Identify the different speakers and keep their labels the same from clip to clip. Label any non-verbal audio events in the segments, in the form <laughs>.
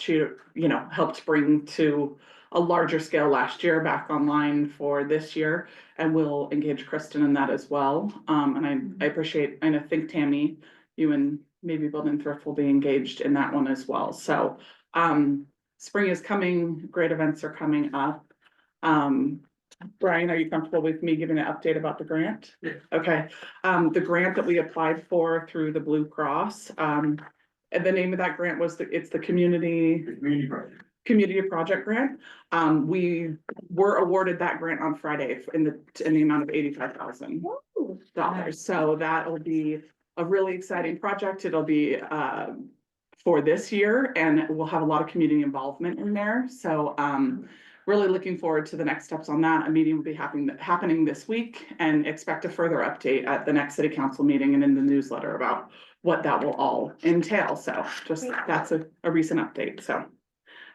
Speaker 1: shoot, you know, helped bring to a larger scale last year back online for this year. And we'll engage Kristen in that as well. Um, and I, I appreciate, and I think Tammy, you and maybe Building Thrift will be engaged in that one as well. So, um, spring is coming, great events are coming up. Um, Brian, are you comfortable with me giving an update about the grant?
Speaker 2: Yeah.
Speaker 1: Okay, um, the grant that we applied for through the Blue Cross, um, and the name of that grant was, the it's the Community
Speaker 2: The community project.
Speaker 1: community project grant. Um, we were awarded that grant on Friday in the, in the amount of eighty-five thousand dollars. So that'll be a really exciting project. It'll be, um, for this year and we'll have a lot of community involvement in there. So, um, really looking forward to the next steps on that. A meeting will be happening, happening this week and expect a further update at the next city council meeting and in the newsletter about what that will all entail. So just, that's a, a recent update. So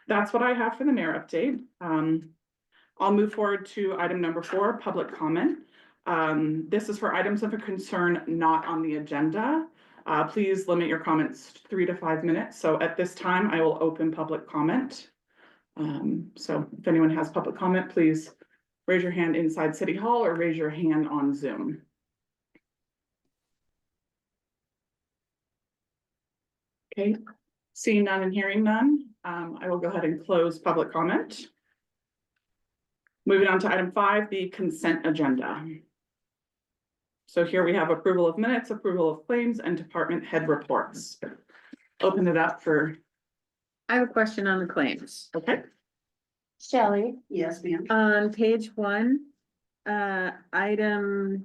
Speaker 1: that's what I have for the mayor update. Um, I'll move forward to item number four, public comment. Um, this is for items of a concern not on the agenda. Uh, please limit your comments to three to five minutes. So at this time, I will open public comment. Um, so if anyone has public comment, please raise your hand inside City Hall or raise your hand on Zoom. Okay, seeing none and hearing none, um, I will go ahead and close public comment. Moving on to item five, the consent agenda. So here we have approval of minutes, approval of claims and department head reports. Open it up for,
Speaker 3: I have a question on the claims.
Speaker 1: okay,
Speaker 4: Shelley,
Speaker 5: Yes, ma'am.
Speaker 3: On page one, uh, item,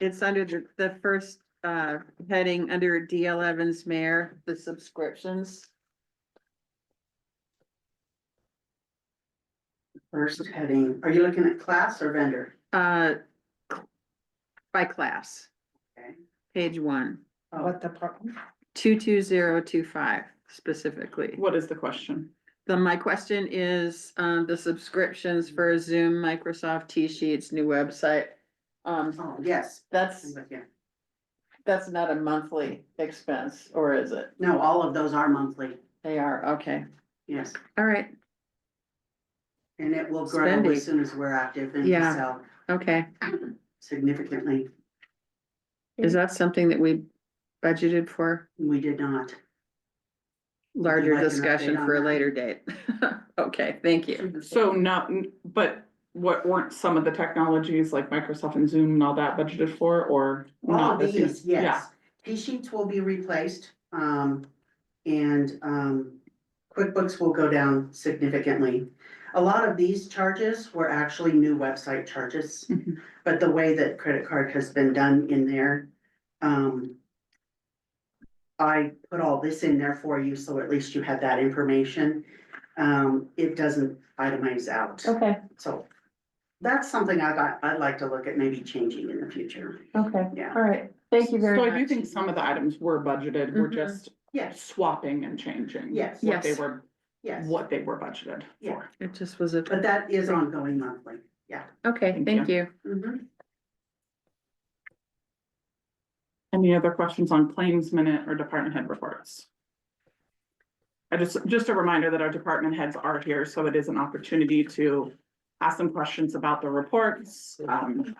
Speaker 3: it's under the, the first, uh, heading under D eleven's mayor, the subscriptions.
Speaker 5: First heading, are you looking at class or vendor?
Speaker 3: Uh, by class.
Speaker 5: Okay. Oh.
Speaker 3: Page one,
Speaker 5: What the?
Speaker 3: two two zero two five specifically.
Speaker 1: what is the question?
Speaker 3: Then my question is, um, the subscriptions for Zoom, Microsoft, T-Sheets, new website. Um,
Speaker 5: Oh, yes.
Speaker 3: that's,
Speaker 5: I'm with you.
Speaker 3: that's not a monthly expense, or is it?
Speaker 5: No, all of those are monthly,
Speaker 3: They are, okay,
Speaker 5: yes,
Speaker 3: all right,
Speaker 5: and it will grow
Speaker 3: Spending.
Speaker 5: as soon as we're active and
Speaker 3: Yeah.
Speaker 5: sell
Speaker 3: okay.
Speaker 5: significantly.
Speaker 3: Is that something that we budgeted for
Speaker 5: We did not.
Speaker 3: larger
Speaker 5: like an update
Speaker 3: discussion
Speaker 5: on
Speaker 3: for a
Speaker 5: that?
Speaker 3: later date? <laughs> Okay, thank you.
Speaker 1: So not, but what weren't some of the technologies like Microsoft and Zoom and all that budgeted for or?
Speaker 5: All
Speaker 1: not this year?
Speaker 5: these, yes. T sheets will be replaced, um, and, um, QuickBooks will go down significantly. A lot of these charges were actually new website charges,
Speaker 1: Mhm.
Speaker 5: but the way that credit card has been done in there, um, I put all this in there for you, so at least you had that information. Um, it doesn't itemize out,
Speaker 4: okay,
Speaker 5: so that's something I got, I'd like to look at maybe changing in the future,
Speaker 4: okay,
Speaker 5: yeah.
Speaker 4: all right, thank you very
Speaker 1: So I do
Speaker 4: much. Mm-hmm.
Speaker 1: think some of the items were budgeted, we're
Speaker 3: Mhm.
Speaker 1: just
Speaker 5: Yes,
Speaker 1: swapping and changing.
Speaker 5: Yes.
Speaker 1: What they
Speaker 3: Yes.
Speaker 1: were,
Speaker 5: yes.
Speaker 1: what they were budgeted
Speaker 5: Yeah.
Speaker 1: for.
Speaker 3: It just was a,
Speaker 5: But that is ongoing monthly, Mm-hmm. yeah.
Speaker 3: okay,
Speaker 1: Thank
Speaker 3: thank you.
Speaker 1: Any other questions on claims minute or department head reports? I just, just a reminder that our department heads are here, so it is an opportunity to ask them questions about the reports. Um,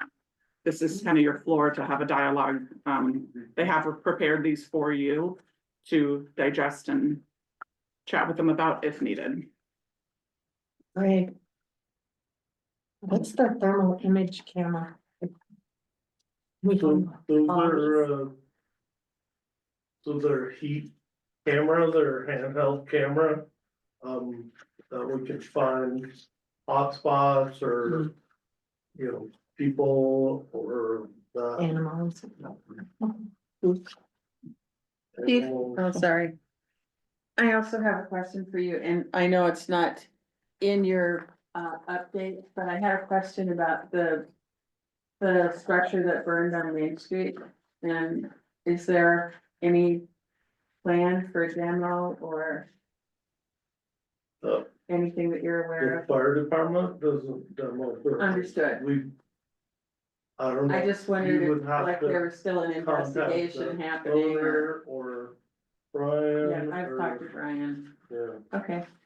Speaker 1: This is kind of your floor to have a dialogue. Um, they have prepared these for you to digest and chat with them about if needed.
Speaker 4: Greg. What's the thermal image camera? We
Speaker 6: So
Speaker 4: can,
Speaker 6: those
Speaker 4: are,
Speaker 6: are, uh. Those are heat cameras or handheld camera, um, that we can find hotspots or. You know, people or the.
Speaker 4: animals.
Speaker 3: Keith? Oh, sorry. I also have a question for you, and I know it's not in your uh update, but I had a question about the. The structure that burned on Main Street, and is there any plan for demo or
Speaker 6: The,
Speaker 3: anything that you're aware
Speaker 6: the
Speaker 3: of?
Speaker 6: fire department doesn't demo. their-
Speaker 3: Understood.
Speaker 6: We. I don't know.
Speaker 3: I just wondered
Speaker 6: You would
Speaker 3: if
Speaker 6: have
Speaker 3: like
Speaker 6: to
Speaker 3: there was still an
Speaker 6: contact the
Speaker 3: investigation happening or,
Speaker 6: owner Or
Speaker 3: yeah,
Speaker 6: Brian
Speaker 3: I've talked to
Speaker 6: or,
Speaker 3: Brian,
Speaker 6: yeah.
Speaker 3: okay.